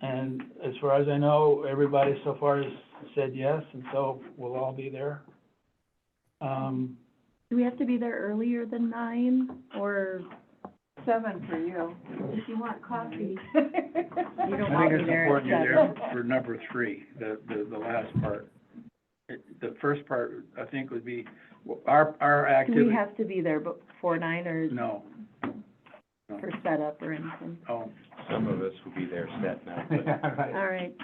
And as far as I know, everybody so far has said yes, and so we'll all be there. Um, Do we have to be there earlier than nine, or? Seven for you. If you want coffee. You I don't think want me it's there important at you're there seven. for number three, the, the, the last part. It- The first part, I think, would be, w- our, our Do we activity, have to be there before nine or no, for setup or anything? oh. Some of us will be there set now, but All right,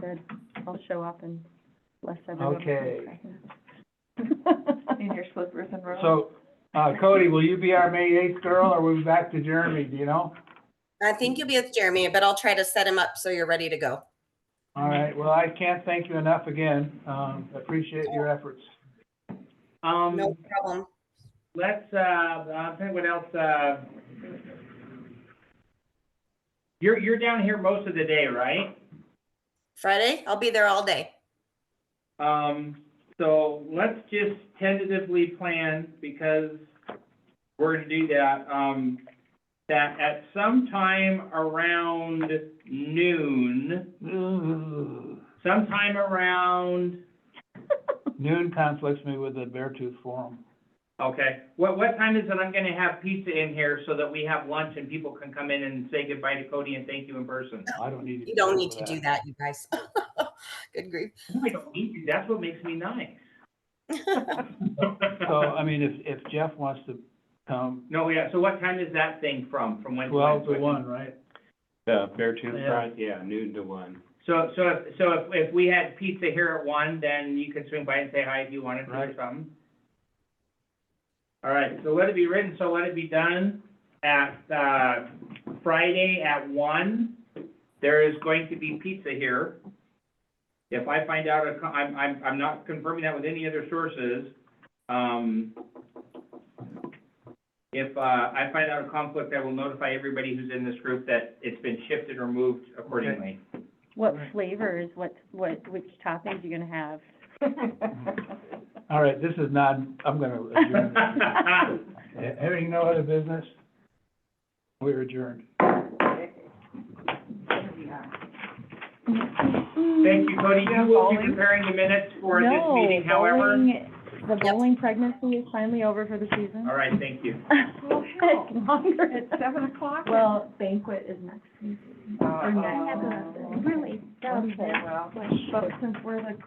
good. I'll show up and bless everyone. Okay. In your slippers and robes. So, uh, Cody, will you be our May eighth girl, or we back to Jeremy, do you know? I think you'll be with Jeremy, but I'll try to set him up so you're ready to go. All right, well, I can't thank you enough again, um, appreciate your efforts. No Um, problem. let's, uh, I'll tell you what else, uh, you're, you're down here most of the day, right? Friday, I'll be there all day. Um, so let's just tentatively plan, because we're gonna do that, um, that at some time around noon, Ooh, sometime around, Noon conflicts me with the Beartooth Forum. okay, what, what time is it I'm gonna have pizza in here so that we have lunch and people can come in and say goodbye to Cody and thank you in person? I don't need to. You don't need to do that, you guys. Good grief. I don't need to. That's what makes me nice. So, I mean, if, if Jeff wants to come, No, yeah, so what time is that thing from, from when? to when? twelve to one, right? the Beartooth Yeah. Front, yeah, noon to one. So, so, if- so if, if we had pizza here at one, then you could swing by and say hi if you wanted to or Right. something. All right, so let it be written, so let it be done at, uh, Friday at one. There is going to be pizza here. If I find out, a co- I'm, I'm, I'm not confirming that with any other sources. Um, if, uh, I find out a conflict, I will notify everybody who's in this group that it's been shifted or moved accordingly. What Right. flavors, what, what, which toppings you gonna have? All right, this is not, I'm gonna adjourn. Ha- Having no other business, we're adjourned. Thank you, Cody. You will be preparing the minutes for this No, meeting, however. bowling- The bowling pregnancy is finally over for the season. All right, thank you. Oh, hell. It's longer. It's seven o'clock? Well, banquet is next week. Uh, Or uh, next. Really Okay, well, but since we're the